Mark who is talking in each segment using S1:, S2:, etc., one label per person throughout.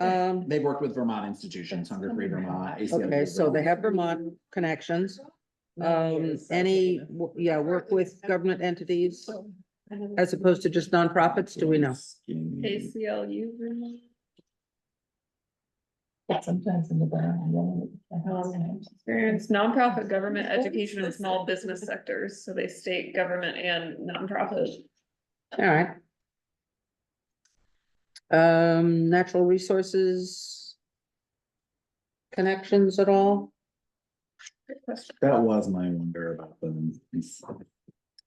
S1: Um,
S2: They've worked with Vermont institutions, Hunger Free Vermont. ACLU
S1: okay, so they
S2: Vermont.
S1: have Vermont connections. Um, any, w- yeah, work with government entities as opposed to just nonprofits, do we know?
S3: Mm-hmm. ACLU. Vermont.
S4: Sometimes in the background.
S3: Experience nonprofit government education and small business sectors, so they state government and nonprofit.
S1: All right. Um, natural resources. Connections at all?
S3: Good question.
S2: That was my wonder about them. is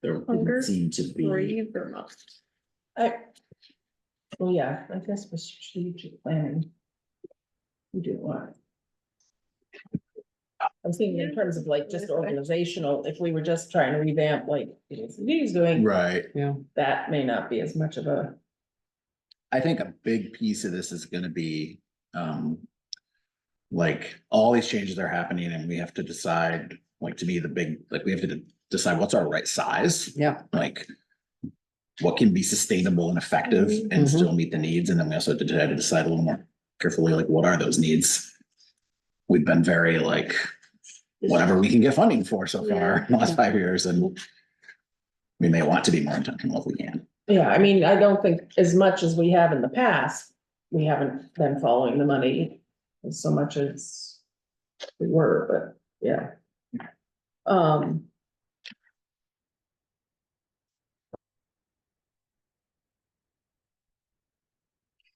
S2: There
S3: Hunger
S2: didn't seem to be.
S3: Free Vermont.
S4: Well, yeah, I guess for strategic planning. We do want. I'm thinking in terms of like just organizational, if we were just trying to revamp like he's doing,
S2: Right.
S1: Yeah.
S4: that may not be as much of a.
S2: I think a big piece of this is gonna be, um. Like, all these changes are happening and we have to decide, like, to me, the big, like, we have to decide what's our right size.
S1: Yeah,
S2: like what can be sustainable and effective and
S1: Mhm.
S2: still meet the needs. And then we also had to try to decide a little more carefully, like what are those needs? We've been very like, whatever we can get funding for so far in the last five years and
S1: Mm-hmm.
S2: we may want to be more intentional if we can.
S4: Yeah, I mean, I don't think as much as we have in the past, we haven't been following the money as so much as we were, but yeah. Um.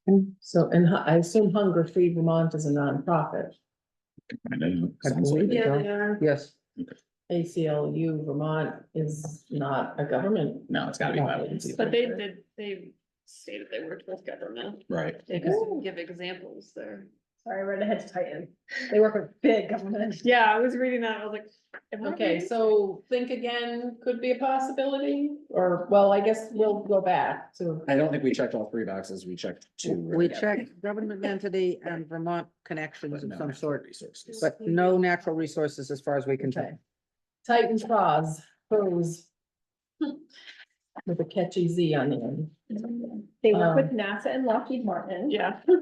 S1: Hmm.
S4: So, and hu- I assume Hunger Free Vermont is a nonprofit,
S2: I know,
S1: I
S2: sounds like-
S1: believe- Yeah, they
S3: are.
S1: yes.
S4: ACLU Vermont is not a government.
S2: No, it's gotta be by agency,
S3: But they did, they stated they worked with government,
S2: right?
S3: they just didn't give examples there.
S5: Sorry, I read ahead to Titan. They work with big government.
S3: Yeah, I was reading that, I was like. am I
S4: Okay,
S3: reading?
S4: so think again could be a possibility, or, well, I guess we'll go back to.
S2: I don't think we checked all three boxes. We checked two.
S1: We checked government entity and Vermont connections
S2: but
S1: of
S2: no
S1: some
S2: natural
S1: sort,
S2: resources.
S1: but no natural resources as far as we can tell.
S4: Okay. Titan Pros, pros. With a catchy Z on the end.
S5: They work with
S4: Um,
S5: NASA and Lockheed Martin.
S3: Yeah.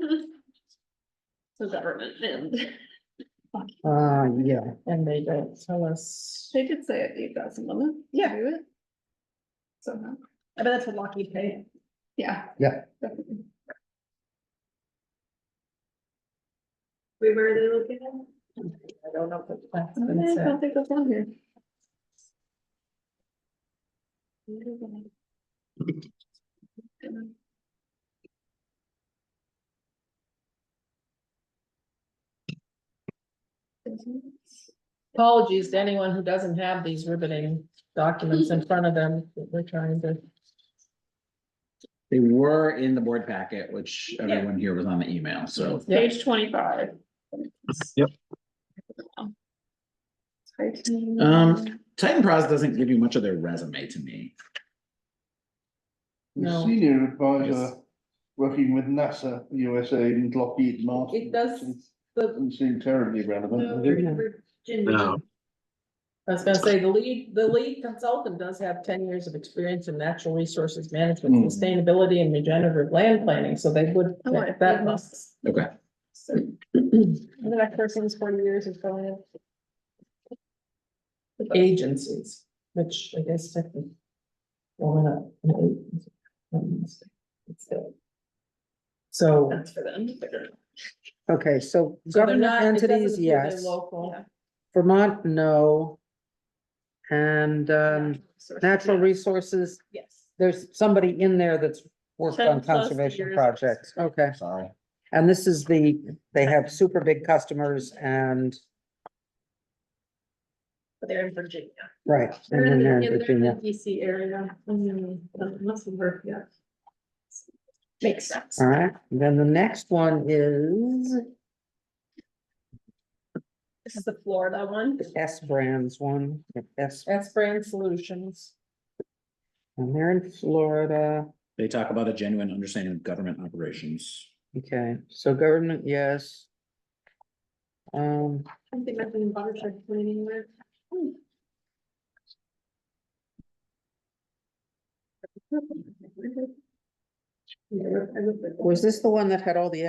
S3: So government and
S1: Uh, yeah.
S4: And they don't tell us.
S3: they did say eight thousand limit.
S5: Yeah.
S3: Do it. Somehow,
S5: I bet that's what Lockheed paid.
S3: yeah.
S1: Yeah.
S3: Definitely.
S5: We were they looking at?
S4: I don't know if that's been
S3: I
S4: said.
S3: don't think that's on here.
S4: Apologies to anyone who doesn't have these riveting documents in front of them that we're trying to.
S2: They were in the board packet, which everyone here was on the email,
S1: Mm-hmm.
S2: so.
S4: Yeah.
S3: Page twenty-five.
S2: Yep.
S3: Titan.
S2: Um, Titan Pros doesn't give you much of their resume to me.
S4: No.
S6: The Senior advisor
S2: Yes.
S6: working with NASA USA and Lockheed Martin.
S4: It does-
S6: Doesn't-
S4: The,
S6: Doesn't seem terribly relevant. does it?
S4: I was gonna say, the lead, the lead consultant does have ten years of experience in natural resources management,
S6: Hmm.
S4: sustainability and regenerative land planning, so they would.
S3: Oh, I
S4: That
S3: did
S4: must.
S2: Okay.
S5: The next person's forty years is going in.
S4: agencies, which I guess technically. Well, we're not an agency. Um, it's- it's the- So.
S3: That's for them. to figure it out.
S1: Okay, so
S4: so they're
S1: government
S4: not- it doesn't
S1: entities,
S4: include their
S1: yes.
S4: Local.
S3: Yeah.
S1: Vermont, no. And um,
S3: Source-
S1: natural
S3: yeah.
S1: resources,
S5: Yes.
S1: there's somebody in there that's worked
S3: 10
S1: on
S3: plus
S1: conservation
S3: years.
S1: projects. Okay,
S2: Sorry.
S1: and this is the, they have super big customers and,
S5: But they're in Virginia.
S1: right, and then they're in Virginia.
S5: DC area. Mm-hmm. Must work, yeah. Makes sense.
S1: All right, then the next one is
S5: This is the Florida one.
S1: the S Brands one, the S,
S4: That's brand solutions.
S1: and they're in Florida.
S2: They talk about a genuine understanding of government operations.
S1: Okay, so government, yes. Um,
S5: I don't think I've been butter check anywhere.
S1: was this the one that had all the